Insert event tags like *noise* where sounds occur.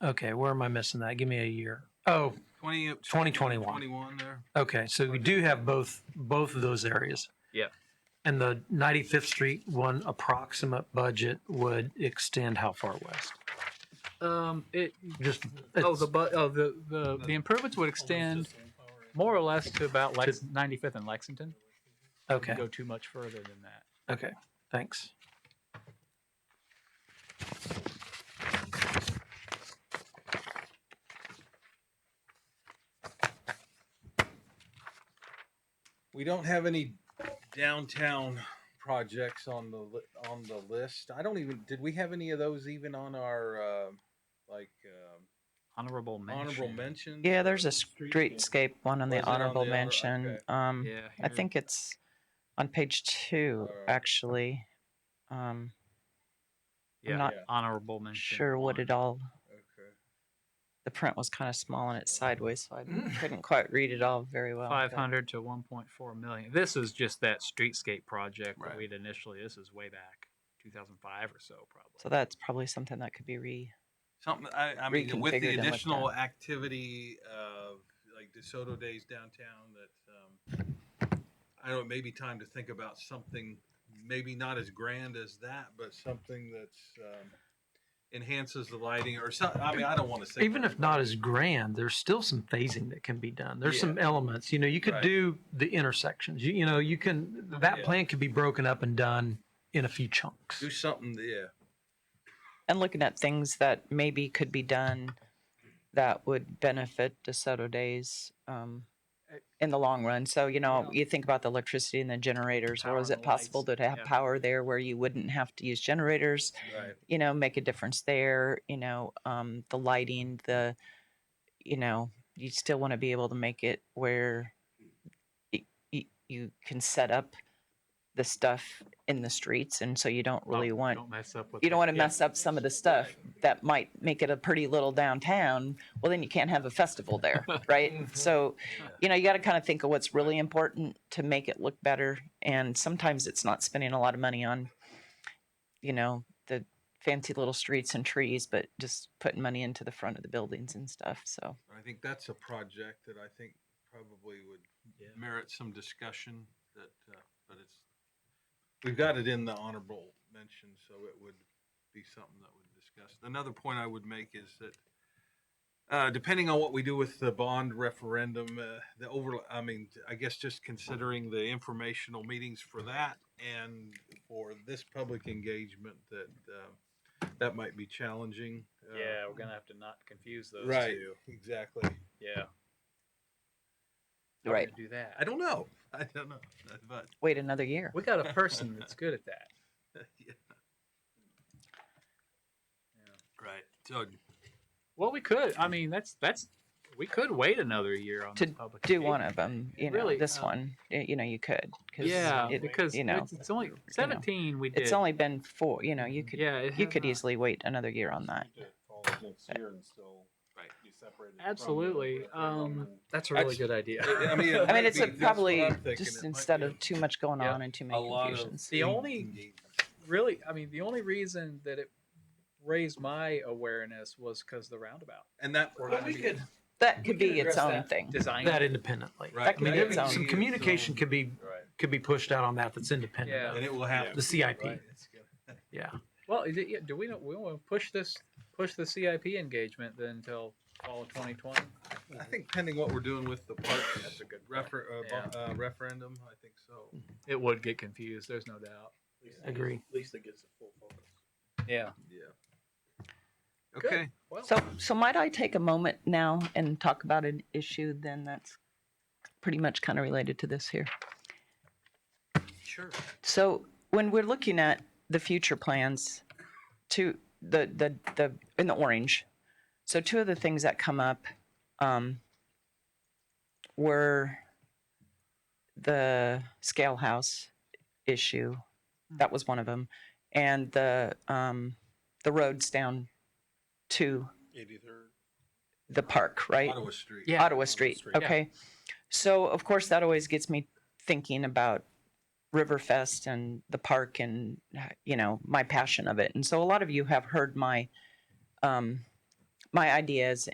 Okay, where am I missing that? Give me a year. Oh, 20, 2021. 21 there. okay, so we do have both, both of those areas. Yeah. And the 95th Street one approximate budget would extend how far west? Um, it, Just, oh, it's- the, bu- oh, the, the, the improvements would extend more or less to about Lex, 95th and Lexington. okay, Wouldn't Go too much further than that. okay, thanks. We don't have any downtown projects on the li- on the list. I don't even did we have any of those even on our uh, like uh, Honorable mention. honorable mention? Yeah, there's a streetscape one on Was the it on the honorable honor- mention. okay. Um, Yeah. I here- think it's on page two, Alright. actually. Um, yeah, not Yeah. honorable mention. sure what one. it all, Okay. the print was kind of small and it's sideways, so Mm. I couldn't quite read it all very well. Five but- hundred to one point four million. This is just that streetscape project Right. that we'd initially. This is way back, two thousand five or so, probably. So that's probably something that could be re, Something I, I mean with Reconfigure the them with additional activity of like DeSoto Days downtown that um, I don't know, it may be time to think about something maybe not as grand as that, but something that's um, enhances the lighting or something. I mean, I don't want to say Even if not as grand, there's still some phasing that can be done. There's Yeah. some elements, you know, you could Right. do the intersections, you, you know, you can, that Yeah. plan could be broken up and done in a few chunks. do something, yeah. and looking at things that maybe could be done that would benefit DeSoto Days um, Eh, in the long run. So, you know, Well- you think about the electricity and the generators, Power or is and it the lights, possible to have yeah. power there where you wouldn't have to use generators? Right. you know make a difference there you know um the lighting the you know you still want to be able to make it where y- y- you can set up the stuff in the streets and so you don't Well, really want Don't mess up with. you the- don't want to yeah. mess up some of the stuff that might make it a pretty little downtown. Well, then you can't have a festival *laughs* there, right? Mm-hmm. So, you know, you got to kind of think of what's really important to make it look better. And sometimes it's not spending a lot of money on, you know, the fancy little streets and trees, but just putting money into the front of the buildings and stuff. So, I think that's a project that I think probably would Yeah. merit some discussion that, uh, but it's, we've got it in the honorable mention, so it would be something that would discuss. Another point I would make is that, uh, depending on what we do with the bond referendum, uh, the over, I mean, I guess just considering the informational meetings for that and for this public engagement that, uh, that might be challenging. uh, Yeah, we're gonna have to not confuse those Right, two. exactly. Yeah. How we right. gonna Do that. I don't know. I don't know. But Wait another year. We got a person that's good at that. yeah. Right. So Well, we could. I mean, that's that's we could wait another year on To this public. Do one of them, you know, Really, this uh, one, y- you know, you could. 'cause Yeah, it- because you know, it's, it's only seventeen. we did. it's only been four, you know, you could. yeah. it You has could not- easily wait another year on that. Absolutely. Um, that's a I really just- good idea. I *laughs* *laughs* mean, I mean, it's Maybe that's a, what probably I'm thinking. It just might instead be of too much going Yeah, on and too a many lot of confusions. The only really, I mean, the only reason that it raised my awareness was because the roundabout and that Or I we mean, could- That could we could be its address own that. thing. design. That independently. right. I mean, be there- its own. some communication could be, Right. could be pushed out on that that's independent Yeah. of And it will have Yeah. to the be, CIP. right? It's gonna- Yeah. Well, is it, yeah, do we not, we want to push this push the CIP engagement then until fall of 2020? I think pending what we're doing with the parks, that's a good refer, uh, Yeah. Mm-hmm. bo- uh, referendum. I think so. It would get confused. There's no doubt. Agree. At least it gets a full focus. Yeah. Yeah. Okay. Well, So, so might I take a moment now and talk about an issue then that's pretty much kind of related to this here? sure. So when we're looking at the future plans to the, the, the, in the orange, so two of the things that come up, um, were the scale house issue. Hmm. That was one of them. And the, um, the roads down to Eighty-third. the park, right? Ottawa Street. Yeah. Ottawa Street. Street. Yeah. Okay. So of course that always gets me thinking about Riverfest and the park and you know my passion of it. And so a lot of you have heard my um, my ideas